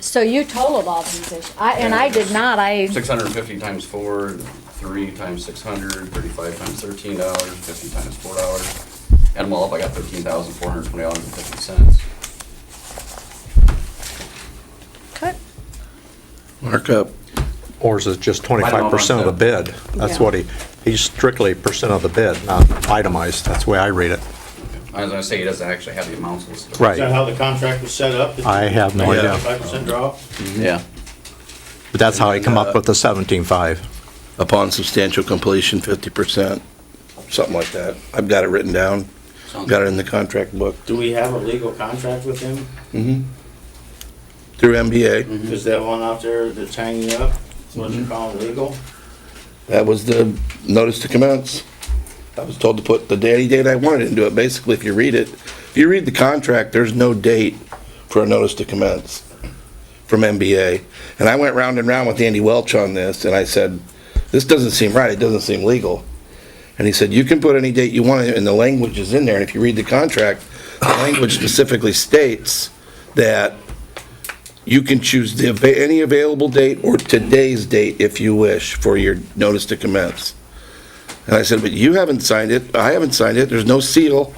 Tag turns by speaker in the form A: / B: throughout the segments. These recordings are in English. A: So you totaled all these issues, I, and I did not, I,
B: Six hundred and fifty times four, three times six hundred, thirty-five times thirteen dollars, fifty times four dollars. Add them all up, I got thirteen thousand four hundred twenty dollars and fifty cents.
A: Okay.
C: markup.
D: Ours is just 25% of the bid. That's
A: Yeah.
D: what he, he's strictly percent of the bid, not itemized. That's the way I read it.
B: I was gonna say, he doesn't actually have the amounts listed.
D: Right.
E: Is that how the contract was set up?
D: I have no
C: Yeah.
D: idea.
E: Five percent draw?
C: Yeah.
D: But that's how he come up with the 17.5.
C: Upon substantial completion, fifty percent, something like that. I've got it written down,
B: Sounds-
C: got it in the contract book
E: Do we have a legal contract with him?
C: through MBA.
D: Mm-hmm.
E: Is that one out there that's hanging up? What's it called, legal?
C: That was the notice to commence. I was told to put the day, any date I wanted into it. Basically, if you read it, if you read the contract, there's no date for a notice to commence from MBA. And I went round and round with Andy Welch on this, and I said, this doesn't seem right, it doesn't seem legal. And he said, you can put any date you want, and the language is in there, and if you read the contract, the language specifically states that you can choose the, ava- any available date or today's date if you wish for your notice to commence. And I said, but you haven't signed it, I haven't signed it, there's no seal.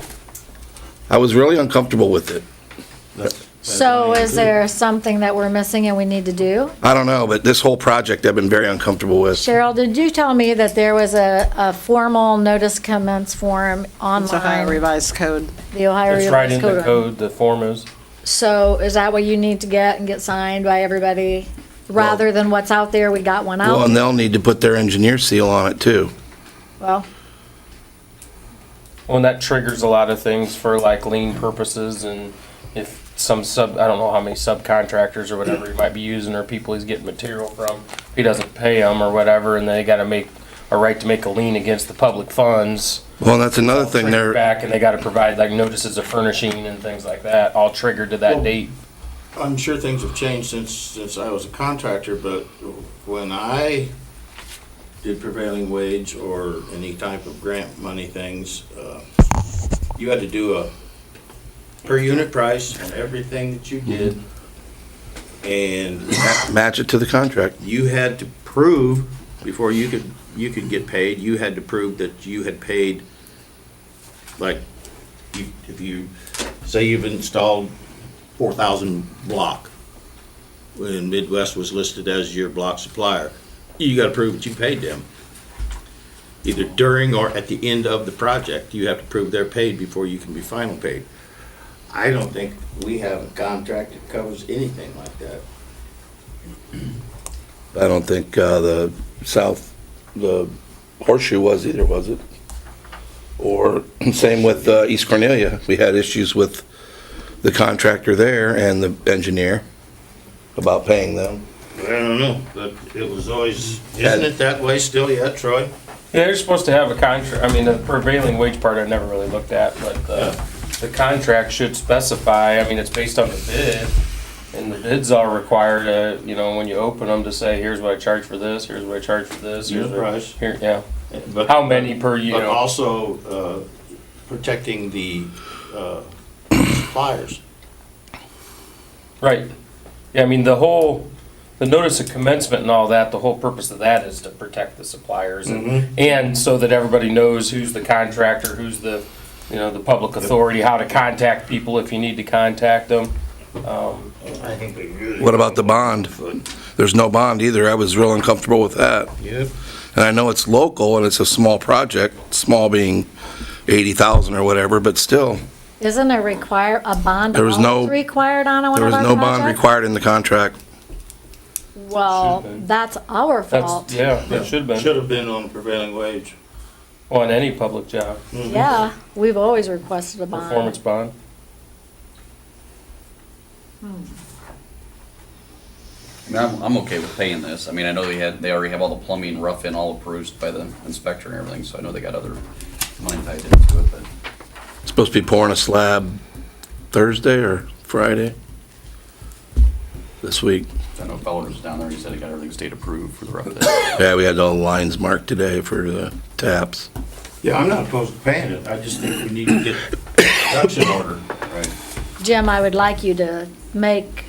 C: I was really uncomfortable with it.
A: so is there something that we're missing and we need to do?
C: I don't know, but this whole project I've been very uncomfortable with.
A: Cheryl, did you tell me that there was a, a formal notice commence form
F: It's Ohio
A: online?
F: Revised Code.
A: The Ohio
G: It's right in
A: Revised
G: the
A: Code.
G: code, the form is.
A: So is that what you need to get and get signed by everybody? Rather than what's out there, we got one
C: Well,
A: out?
C: and they'll need to put their engineer seal on it too.
A: Well,
G: Well, and that triggers a lot of things for like lien purposes and if some sub, I don't know how many subcontractors or whatever he might be using or people he's getting material from, if he doesn't pay them or whatever, and they gotta make, a right to make a lien against the public funds.
C: Well, and that's another thing,
G: trigger
C: they're,
G: Back and they gotta provide like notices of furnishing and things like that, all triggered to that
E: Well-
G: date.
E: I'm sure things have changed since, since I was a contractor, but when I did prevailing wage or any type of grant money things, uh, you had to do a per unit price on everything that you did.
D: Mm-hmm.
E: And
C: match it to the contract.
E: you had to prove, before you could, you could get paid, you had to prove that you had paid, like, you, if you, say you've installed four thousand block, when Midwest was listed as your block supplier, you gotta prove that you paid them. Either during or at the end of the project, you have to prove they're paid before you can be final paid. I don't think we have a contract that covers anything like that.
C: I don't think, uh, the south, the horseshoe was either, was it? Or same with, uh, East Cornelia. We had issues with the contractor there and the engineer about paying them.
E: I don't know, but it was always, isn't it that way still yet, Troy?
G: Yeah, they're supposed to have a contract, I mean, the prevailing wage part I never really looked at, but the, the contract should specify, I mean, it's based on the bid. And the bids are required, uh, you know, when you open them to say, here's what I charge for this, here's what I charge for this.
E: Here's
G: here's
E: the
G: what-
E: price.
G: Here, yeah,
E: But-
G: how many per, you
E: But
G: know,
E: also, uh, protecting the, uh, suppliers.
G: right. Yeah, I mean, the whole, the notice of commencement and all that, the whole purpose of that is to protect the suppliers. and And so that everybody knows who's the contractor, who's the, you know, the public authority, how to contact people if you need to contact them.
E: I think they really.
C: What about the bond? There's no bond either. I was real uncomfortable with that.
E: Yep.
C: And I know it's local and it's a small project, small being eighty thousand or whatever, but still,
A: isn't a require, a bond
C: There was no-
A: always required on one
C: there
A: of our
C: was no bond
A: projects?
C: required in the contract.
A: Well,
G: Should've been.
A: that's our
G: That's,
A: fault,
G: yeah, that should have been,
E: Should have been on prevailing wage.
G: on any public job,
A: yeah, we've always requested a
G: performance
A: bond.
G: bond.
B: I mean, I'm, I'm okay with paying this. I mean, I know they had, they already have all the plumbing rough in, all approved by the inspector and everything, so I know they got other money tied into it, but.
C: Supposed to be pouring a slab Thursday or Friday this week.
B: I know Fowler was down there, he said he got everything state approved for the rough edge.
C: Yeah, we had all the lines marked today for the taps.
E: Yeah, I'm not opposed to paying it, I just think we need to get production order.
B: Right.
A: Jim, I would like you to make